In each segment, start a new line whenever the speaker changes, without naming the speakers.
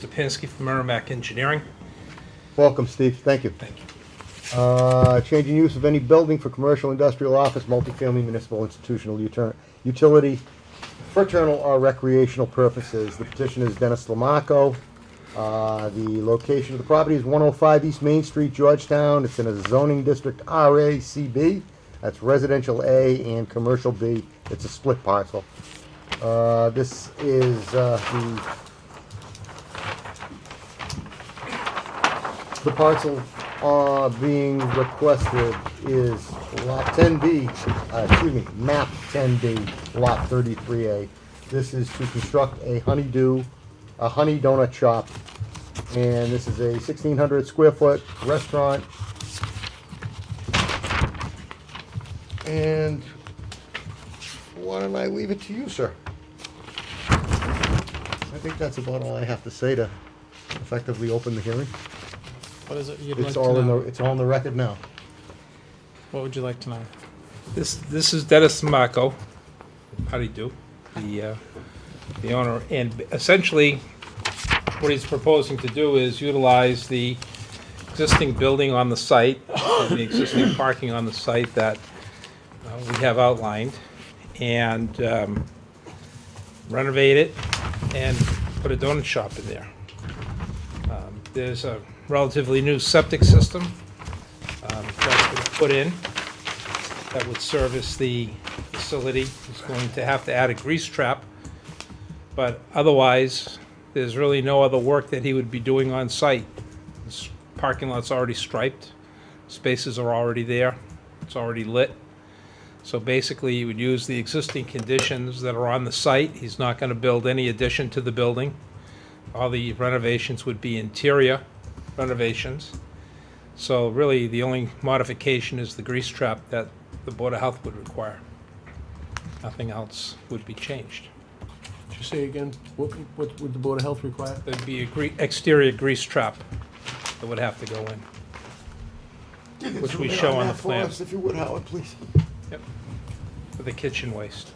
Stepansky from Merrimack Engineering.
Welcome, Steve. Thank you.
Thank you.
Uh, change in use of any building for commercial, industrial, office, multifamily, municipal, institutional, uter- utility, fraternal, or recreational purposes. The petition is Dennis Lamaco. Uh, the location of the property is one oh five East Main Street, Georgetown. It's in a zoning district RACB. That's residential A and commercial B. It's a split parcel. Uh, this is, uh, the The parcel uh, being requested is lot 10B, uh, excuse me, map 10B, lot 33A. This is to construct a honeydew, a honey donut shop. And this is a 1,600 square foot restaurant. And why don't I leave it to you, sir? I think that's about all I have to say to effectively open the hearing.
What is it you'd like
It's
to
all in the,
know?
it's all in the record now.
What would you like to know?
This, this is Dennis Marco. How do you do? The, uh, the owner, and essentially, what he's proposing to do is utilize the existing building on the site, and the existing parking on the site that uh, we have outlined, and um, renovate it and put a donut shop in there. Um, There's a relatively new septic system um, that's been put in that would service the facility. It's going to have to add a grease trap, but otherwise, there's really no other work that he would be doing on site. This Parking lot's already striped, spaces are already there, it's already lit. So basically, you would use the existing conditions that are on the site. He's not gonna build any addition to the building. All the renovations would be interior renovations. So really, the only modification is the grease trap that the Board of Health would require. Nothing else would be changed.
Did you say again, what, what would the Board of Health require?
There'd be a gre- exterior grease trap that would have to go in. Which we show on the plan.
If you would, Howard, please.
Yep. For the kitchen waste.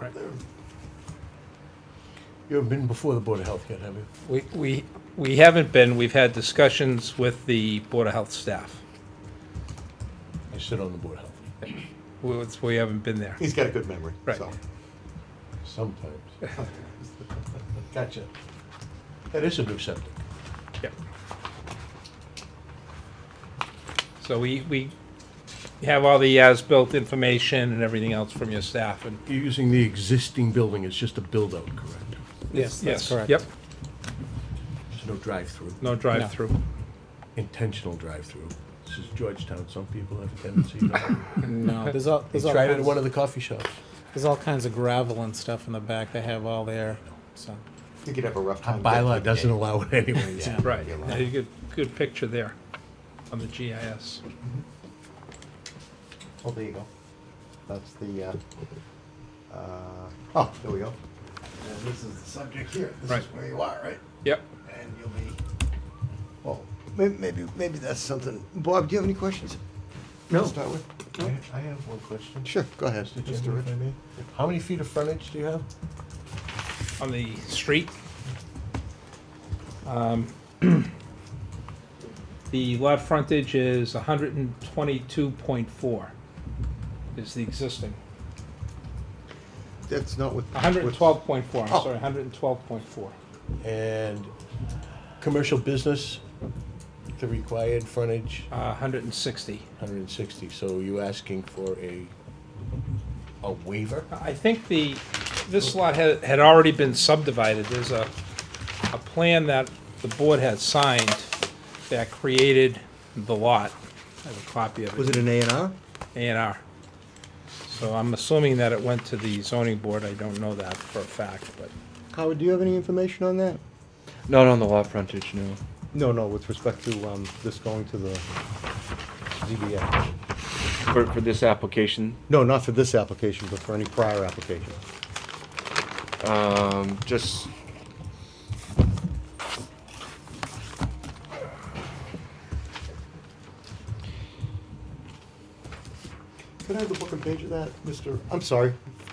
Right.
You haven't been before the Board of Health yet, have you?
We, we, we haven't been, we've had discussions with the Board of Health staff.
You sit on the Board of Health
We, we haven't been there.
He's got a good memory,
Right.
so.
sometimes. Gotcha. That is a new septic.
Yep. So we, we have all the as-built information and everything else from your staff and.
You're using the existing building, it's just a build-out, correct?
Yes, that's correct.
Yep,
There's no drive-through,
no drive-through.
intentional drive-through. This is Georgetown, some people have a tendency to.
No, there's all,
They
there's all
tried it at
kinds,
one of the coffee shops.
there's all kinds of gravel and stuff in the back they have all there, so.
I think you'd have a rough
Our
time.
bylaw doesn't allow it anyways.
Yeah.
Right, Now, you get good picture there on the GIS.
Oh, there you go. That's the, uh, uh, oh, there we go.
And this is the subject here. This is
Right.
where you are, right?
Yep,
And you'll be. Well, maybe, maybe, maybe that's something. Bob, do you have any questions?
No.
To start with?
I I have one question.
Sure, go ahead.
Mr. Chairman, if I may. How many feet of frontage do you have?
on the street. Um, The lot frontage is hundred and twenty-two point four is the existing.
That's not with.
hundred and twelve point four, I'm
Oh.
sorry, hundred and twelve point four.
And commercial business, the required frontage,
Uh, 160.
160, so you asking for a, a waiver?
I think the, this lot had, had already been subdivided. There's a, a plan that the board had signed that created the lot. I have a copy of
Was
it,
it an A and R?
A and R. So I'm assuming that it went to the zoning board. I don't know that for a fact, but
Howard, do you have any information on that?
Not on the lot frontage, no.
No, no, with respect to, um, this going to the ZBA.
For, for this application,
No, not for this application, but for any prior application.
um, just.
Could I have the book and page of that, Mr.? I'm sorry,